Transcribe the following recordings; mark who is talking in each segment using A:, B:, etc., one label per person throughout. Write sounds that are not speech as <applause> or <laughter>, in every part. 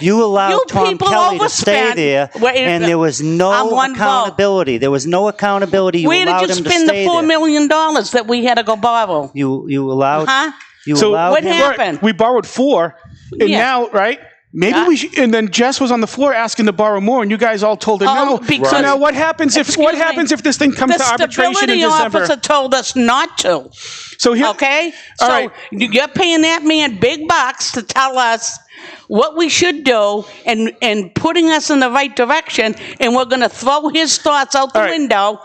A: You allowed
B: You
A: Tom
B: people
A: Kelly to stay
B: overspend.
A: there,
B: Wait,
A: and
B: uh,
A: there was
B: I'm
A: no
B: one vote.
A: accountability. There was no accountability. You
B: Where
A: allowed
B: did you
A: him to
B: spend the
A: stay
B: four
A: there.
B: million dollars that we had to go borrow?
A: You you allowed.
B: Huh?
A: You
C: So-
A: allowed
B: What
A: him.
B: happened?
C: We borrowed four, and
B: Yeah.
C: now right. Maybe we should, and then Jess was on the floor asking to borrow more, and you guys all told her
B: Oh,
C: no.
B: because-
C: so now what happens if what
B: Excuse me.
C: happens if this thing comes
B: The
C: to arbitration in
B: stability
C: December?
B: officer told us not to.
C: so here,
B: Okay?
C: <laughs> All
B: so
C: right.
B: you're paying that man big bucks to tell us what we should do and, and putting us in the right direction, and we're going to throw his thoughts out the
C: All right.
B: window.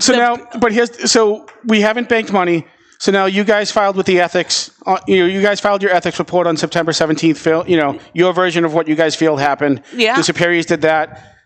C: So now, but here's so we haven't banked money. So now you guys filed with the ethics. Uh, you know, you guys filed your ethics report on September 17th. Phil, you know your version of what you guys feel happened.
B: Yeah.
C: The superiors did that.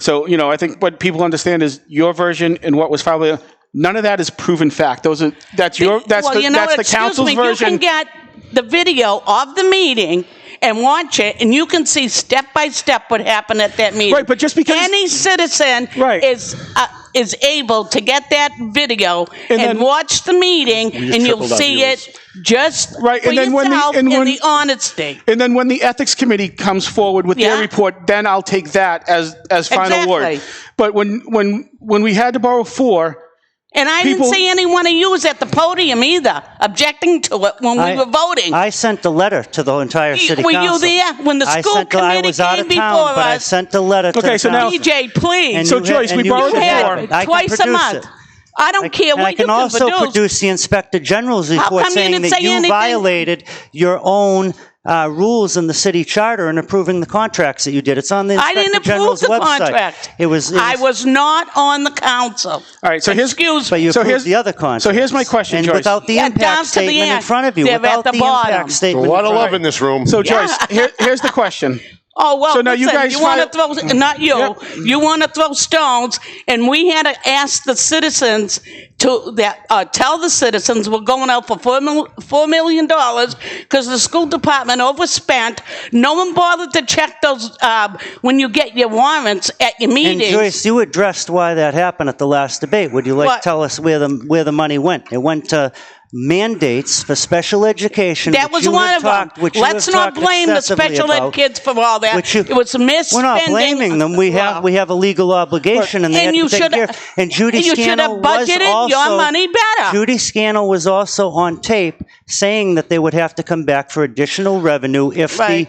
C: So you know, I think what people understand is your version and what was filed. with- None of that is proven fact. Those are that's your that's
B: well,
C: the,
B: you know,
C: that's the
B: excuse
C: council's
B: me,
C: version.
B: You can get the video of the meeting and watch it, and you can see step by step what happened at that meeting.
C: Right, but just because-
B: any citizen
C: Right.
B: is. Uh, is able to get that video and,
C: then-
B: watch the meeting, and you'll
D: tripled our
B: see
D: viewers.
B: it just
C: Right,
B: for
C: and then when the-
B: yourself
C: and
B: in
C: when-
B: the honesty.
C: and then when the ethics committee comes forward with
B: Yeah.
C: their report, then I'll take that as as final
B: Exactly.
C: word. But when when when we had to borrow four,
B: And I
C: people-
B: didn't see any one of you was at the podium either, objecting to it when we
A: I-
B: were voting.
A: I sent the letter to the entire
B: You-
A: city
B: were you
A: council.
B: there when the
A: I
B: school
A: sent the- I
B: committee
A: was out
B: came
A: of town,
B: before
A: but I
B: us?
A: sent the letter to
C: Okay,
A: the
C: so now-
A: council.
B: DJ, please.
A: And
C: So,
A: you had-
C: Joyce,
A: and
C: we
A: you
C: borrowed
A: had
C: the
A: it.
C: floor.
A: I can
B: Twice a
A: produce
B: month.
A: it.
B: I don't care
A: And
B: what
A: I can
B: you can
A: also
B: produce.
A: produce the inspector general's report
B: come you
A: saying
B: didn't
A: that
B: say
A: you
B: anything?
A: violated your own uh, rules in the city charter in approving the contracts that you did. It's on the
B: I
A: inspector
B: didn't approve
A: general's
B: the
A: website.
B: contract.
A: It was. It
B: I was not on the council.
C: All right, so here's
B: Excuse
A: But
B: me.
A: you
C: So
A: approved
C: here's-
A: the other
C: so
A: contract.
C: here's my question,
A: and
C: Joyce.
A: without the
B: Yeah, down
A: impact
B: to the
A: statement in
B: end.
A: front of you,
B: They're at
A: without
B: the
A: the,
B: bottom.
A: impact
D: A
A: statement. in
D: lot of
A: front
D: love in this room.
C: So Joyce, here, here's the question.
B: Oh well,
C: So now you
B: listen,
C: guys
B: want
C: file-
B: to throw not you.
C: Yep.
B: You want to throw stones, and we had to ask the citizens to that uh, tell the citizens we're going out for four mil, four million dollars because the school department overspent. No one bothered to check those uh, when you get your warrants at your
A: And
B: meetings.
A: Joyce, you addressed why that happened at the last debate. Would you like
B: What?
A: to tell us where the where the money went? It went to mandates for special education.
B: That
A: which
B: was
A: you
B: one
A: have
B: of
A: talked,
B: them.
A: which you
B: Let's
A: have
B: not
A: talked
B: blame the
A: excessively
B: special ed
A: about,
B: kids for all that.
A: which you-
B: It was misspending.
A: We're not blaming them. We have we have a legal obligation, and they
B: And
A: had to
B: you
A: take
B: should-
A: care of- And Judy
B: you should
A: Scannell
B: have
A: was
B: budgeted
A: also
B: your money better.
A: Judy Scannell was also on tape saying that they would have to come back for additional revenue if the
B: Right.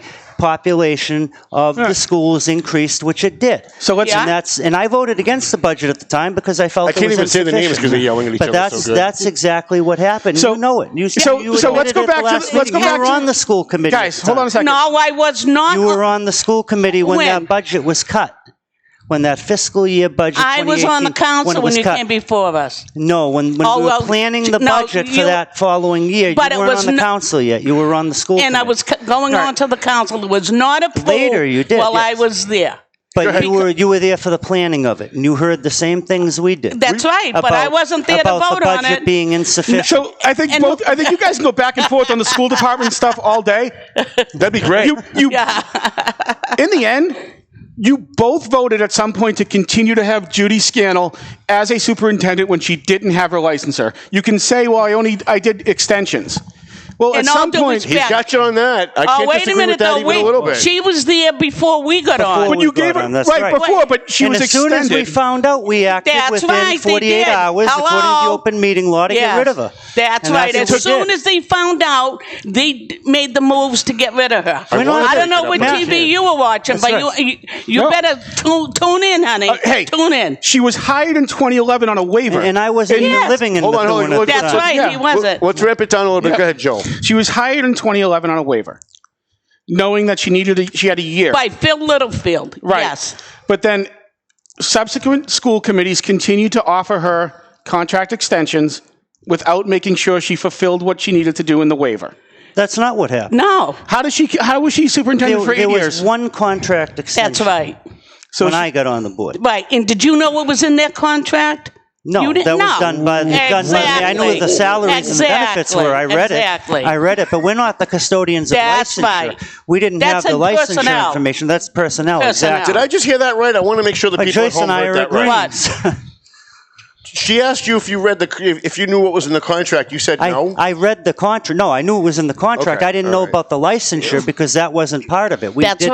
A: population of the schools increased, which it did.
C: So let's-
B: Yeah.
A: and that's and I voted against the budget at the time because I felt
D: I
A: it
D: can't
A: was
D: even say the names
A: insufficient.
D: 'cause they're yelling at each
A: But
D: other so
A: that's
D: good.
A: that's exactly what happened.
C: So-
A: you know it. You,
C: so-
A: you
C: so let's
A: admitted
C: go
A: it
C: back
A: the
C: to
A: last
C: the- let's go
A: meeting.
C: back
A: You were
C: to-
A: on the school committee. at
C: Guys,
A: the
C: hold on
A: time.
C: a second.
B: No, I was not.
A: You were on the school committee when,
B: When?
A: that budget was cut. When that fiscal year budget.
B: I was on
A: 2018,
B: the
A: when,
B: council
A: it
B: when
A: was
B: you
A: cut.
B: came before us.
A: No, when, when
B: Oh,
A: we were
B: well,
A: planning
B: j-
A: the
B: no,
A: budget for
B: you-
A: that following year,
B: But it
A: you weren't
B: was
A: on the
B: no-
A: council yet. You were on the school.
B: And I
A: committee.
B: was c- going on to the council. It was not approved.
A: Later you did,
B: While I
A: yes.
B: was there.
A: But you were you were there for the planning of it, and you heard the same things we did.
B: That's right, but I
A: about-
B: wasn't there to
A: about
B: vote
A: the
B: on
A: budget
B: it.
A: being insufficient.
C: So I think
B: And-
C: both. I think you guys can go back and forth on the school department stuff all day.
D: That'd be great.
C: You, you. in the end, you both voted at some point to continue to have Judy Scannell as a superintendent when she didn't have her licenser. You can say, "Well, I only I did extensions." Well,
B: In
C: at
B: all
C: some
B: due
C: point,
B: respect-
D: He's got you on that. I
B: Oh,
D: can't
B: wait a
D: disagree
B: minute,
D: with that
B: though.
D: even
B: we,
D: a little bit.
B: She was there before we got
A: Before
B: on.
A: we
C: but you
A: got
C: gave her
A: on, that's
C: right,
A: right.
C: before, but she
A: and
C: was
A: as soon
C: extended.
A: as we found out, we acted
B: That's
A: within
B: right, they
A: 48
B: did.
A: hours, according to
B: Hello?
A: the open meeting law, to
B: Yes.
A: get rid of her.
B: That's
A: And
B: right.
A: what
B: as
A: we did.
B: soon as they found out, they d- made the moves to get rid of her. I,
D: I wanted to
B: don't know
D: get
B: what
D: up on
B: TV
D: that.
B: you were watching,
C: That's
B: but
C: right.
B: you you, you
C: No.
B: better tune, tune in, honey.
C: Uh, hey,
B: tune in.
C: She was hired in 2011 on a waiver,
A: and I wasn't
C: And
A: even
B: Yes.
A: living in
D: Hold on, hold
A: Methuen
D: on,
A: at the
D: look-
B: That's
A: time.
B: right.
C: yeah.
B: He wasn't.
D: Well, Let's ramp it down a little bit. Go ahead, Joel.
C: She was hired in 2011 on a waiver, knowing that she needed. A, she had a year.
B: By Phil Littlefield.
C: Right.
B: Yes.
C: But then subsequent school committees continued to offer her contract extensions without making sure she fulfilled what she needed to do in the waiver.
A: That's not what happened.
B: No.
C: How does she? How was she superintendent
A: There,
C: for eight
A: there was
C: years?
A: one contract extension
B: That's right.
C: so
A: when
C: she-
A: I got on the board.
B: Right. And did you know what was in their contract?
A: No,
B: You
A: that
B: didn't-
A: was
B: no.
A: done by the done by the- I know what the
B: Exactly.
A: salaries and the benefits were. I read
B: Exactly.
A: it. I read it, but we're not the custodians of
B: That's
A: licensure.
B: right.
A: We didn't have
B: That's
A: the
B: in
A: licensure
B: personnel.
A: information. That's personnel.
B: Personnel.
A: Exactly.
D: Did I just hear that right? I want to make sure the
A: But
D: people at
A: Joyce
D: home
A: and I
D: heard
A: are
D: that right.
A: agreeing.
D: She asked you if you read the if you knew what was in the contract. You said
A: I,
D: no.
A: I read the contract. No, I knew it was in the contract.
D: Okay,
A: I didn't
D: all
A: know
D: right.
A: about the licensure because that wasn't part of it. We
B: That's
A: did